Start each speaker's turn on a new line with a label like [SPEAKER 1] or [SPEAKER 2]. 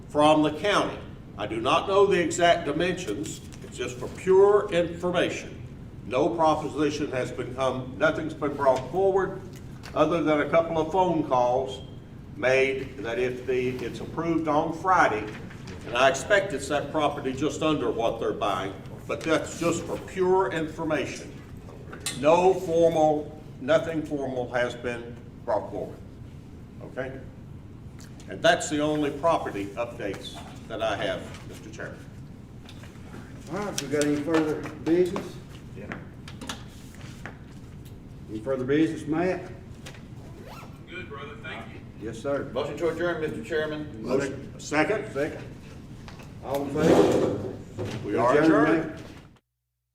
[SPEAKER 1] from the county. I do not know the exact dimensions, it's just for pure information. No proposition has been come, nothing's been brought forward, other than a couple of phone calls made that if the, it's approved on Friday, and I expect it's that property just under what they're buying, but that's just for pure information. No formal, nothing formal has been brought forward, okay? And that's the only property updates that I have, Mr. Chairman.
[SPEAKER 2] All right, we got any further business? Any further business, Matt?
[SPEAKER 3] Good, brother, thank you.
[SPEAKER 2] Yes, sir.
[SPEAKER 4] Motion to adjourn, Mr. Chairman.
[SPEAKER 1] Motion, second,
[SPEAKER 2] Second. All in favor?
[SPEAKER 1] we are adjourned.
[SPEAKER 2] ma'am.